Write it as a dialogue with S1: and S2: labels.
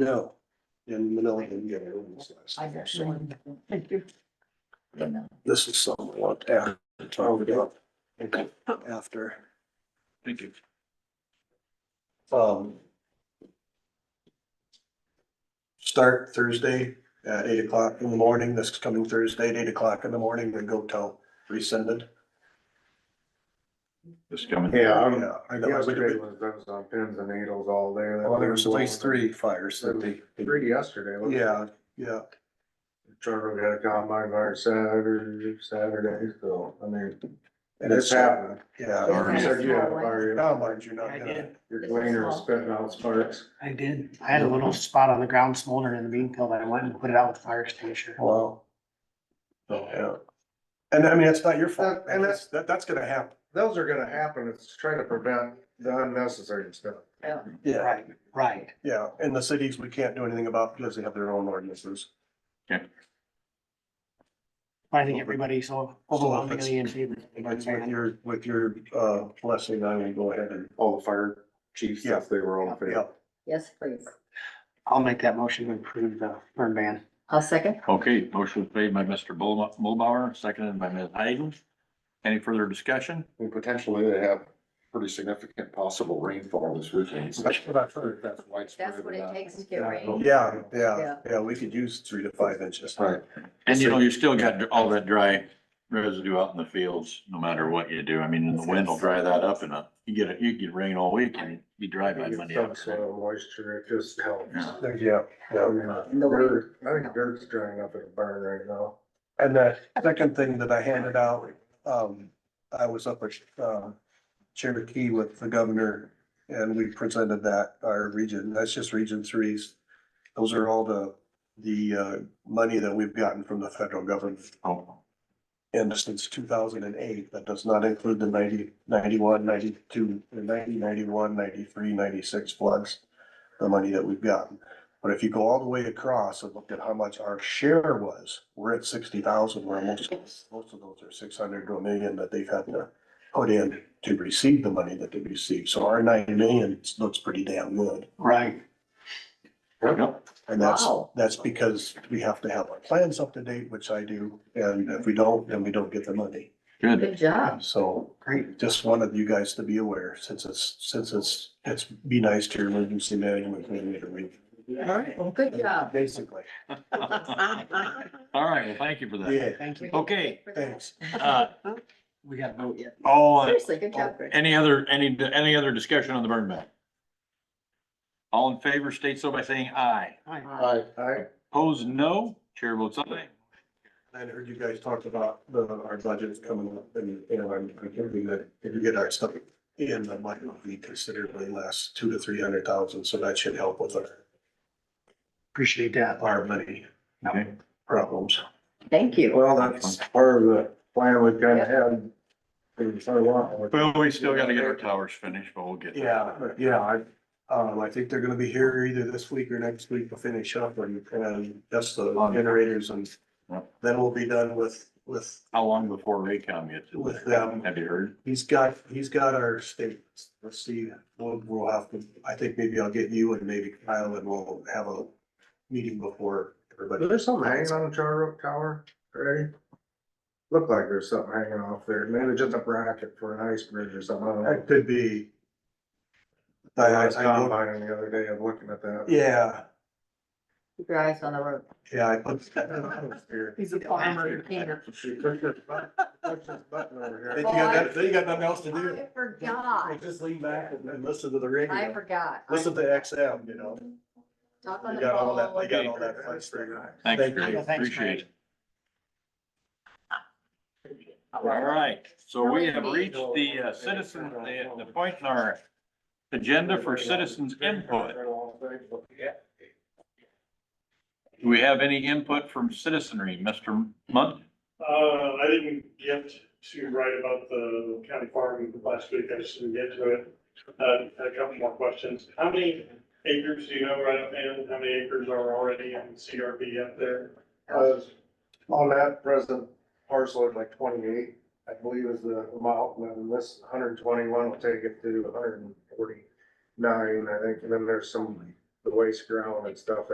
S1: No, in Manila, India. it was last
S2: I
S1: year.
S2: got one. Thank you.
S1: This is somewhat after, targeted up
S3: Oh.
S1: after.
S4: Thank you.
S1: Um. Start Thursday at eight o'clock in the morning, this coming Thursday at eight o'clock in the morning, then go till rescinded.
S4: This coming.
S5: Yeah, I'm,
S1: Yeah, I know. I would've
S5: yesterday
S1: been-
S5: was, that was on pins and needles all day. That
S1: Well, Oh, there was at least
S5: one-
S1: three fires that they,
S5: Three yesterday. wasn't it?
S1: yeah, yeah,
S5: Trevor got a combine fire Saturday, Saturday, so, I mean,
S1: and
S5: it's
S1: it's,
S5: happening.
S1: yeah.
S4: Sorry.
S5: You said you had a
S2: Yeah.
S5: fire,
S1: Now, mind you, not
S3: I
S1: yet.
S3: did.
S5: your cleaner was spitting out sparks.
S3: I did. I had a little spot on the ground smoldering in the bean peel that I went and put it out with a fire extinguisher.
S1: Wow. So, yeah. And I mean, it's not your fault,
S5: And
S1: and that's,
S5: that's-
S1: that, that's gonna happen.
S5: Those are gonna happen. It's trying to prevent the unnecessary stuff.
S1: Yeah.
S3: Right, right.
S1: Yeah, and the cities, we can't do anything about because they have their own ordinances.
S3: I think everybody's so overwhelmingly in favor.
S1: But with your, with your, uh, blessing, I will go ahead and,
S5: All the fire chiefs,
S1: if
S5: they were all
S1: yeah.
S2: Yes, please.
S3: I'll make that motion to approve the burn ban.
S2: I'll second.
S4: Okay, motion was made by Mr. Bull- Mulbauer, seconded by Ms. Hayden. Any further discussion?
S6: And potentially they have pretty significant possible rainfall this weekend. so
S1: That's what I've heard.
S6: That's widespread.
S2: That's what
S6: or
S2: it
S6: not.
S2: takes to get rain.
S1: Yeah, yeah,
S2: Yeah.
S1: yeah, we could use three to five inches.
S6: Right,
S4: And you know, you still got all that dry residue out in the fields, no matter what you do. I mean, the wind will dry that up and uh, you get, it. you get rain all week and it'd be dry by Monday.
S5: Some
S4: afternoon.
S5: soil moisture, it just helps.
S4: Yeah.
S1: There- Yeah,
S5: I
S1: yeah.
S5: mean, dirt- I think dirt's drying up at a burn right now.
S1: And the second thing that I handed out, um, I was up at, uh, Cherokee with the governor and we presented that, our region, that's just region threes. Those are all the, the, uh, money that we've gotten from the federal government.
S4: Oh,
S1: And since two thousand and eight, that does not include the 90, 91, 92, the 90, 91, 93, 96 floods. The money that we've gotten. But if you go all the way across and look at how much our share was, we're at sixty thousand, where most, most of those are six hundred to a million that they've had to. Put in to receive the money that they received. So our nine million looks pretty damn good.
S3: Right.
S4: Yep.
S1: And that's,
S2: Wow.
S1: that's because we have to have our plans up to date, which I do. And if we don't, then we don't get the money.
S4: Good.
S2: Good job.
S1: So
S3: Great.
S1: just wanted you guys to be aware, since it's, since it's, it's be nice to your emergency management committee.
S2: All right. Well, good job.
S1: Basically,
S4: All right, well, thank you for that.
S1: yeah,
S3: Thank you. Oh,
S4: Okay,
S1: thanks.
S4: uh,
S3: We got a vote yet.
S4: all, in-
S2: Seriously, good job, Greg.
S4: any other, any, any other discussion on the burn ban? All in favor, state so by saying aye.
S3: Aye.
S5: I, I,
S4: Opposed, no. Chair votes aye.
S1: I heard you guys talked about the, our budget's coming up and, you know, I'm, I'm hoping that if you get our stuff in, that might not be considerably less, two to three hundred thousand, so that should help with our,
S3: Appreciate that.
S1: our money
S4: Okay.
S1: problems.
S2: Thank you.
S5: well, that's part of the plan we've kind of had. For a while.
S4: Well, we still gotta get our towers finished, but we'll get. there.
S1: Yeah, but yeah, I, um, I think they're gonna be here either this week or next week to finish up and, and that's the generators and
S4: Yep.
S1: then we'll be done with, with,
S4: How long before Raycom gets? it?
S1: with them.
S4: Have you heard?
S1: He's got, he's got our statements. Let's see, we'll, we'll have to, I think maybe I'll get you and maybe Kyle and we'll have a meeting before
S5: Is
S1: everybody.
S5: there something hanging on the Charter Oak Tower already? Looked like there's something hanging off there. Maybe just a bracket for an iceberg or something. I don't know.
S1: That could be. I,
S5: I
S1: I,
S5: was
S1: I, looked-
S5: combining the other day of looking at that.
S1: yeah,
S2: Keep your eyes on the road.
S1: yeah, I put.
S3: He's a
S2: farmer.
S5: She pushed this button, pushed this button over
S1: Then you
S5: here.
S1: got, that- then you got nothing else to do.
S2: I forgot.
S1: Just lean back and and listen to the radio.
S2: Oh, I forgot.
S1: Listen to XM, you know,
S2: Talk on
S1: you
S2: the
S1: got all that, you
S2: phone.
S1: got all that fun stuff.
S4: Thanks,
S1: Thank
S4: Greg.
S1: you.
S3: Thanks,
S4: Appreciate
S3: Greg.
S4: it. All right, so we have reached the uh, citizen, the, the point in our agenda for citizens input. Do we have any input from citizenry, Mr. Munt?
S7: Uh, I didn't get to write about the county farm last week, I just didn't get to it. Uh, had a couple more questions. How many acres do you know right up hand? How many acres are already in CRP up there?
S5: Uh, On that present parcel of like twenty-eight, I believe is the amount, and then this hundred and twenty-one will take it to hundred and forty-nine, I think, and then there's some, the the waste ground and stuff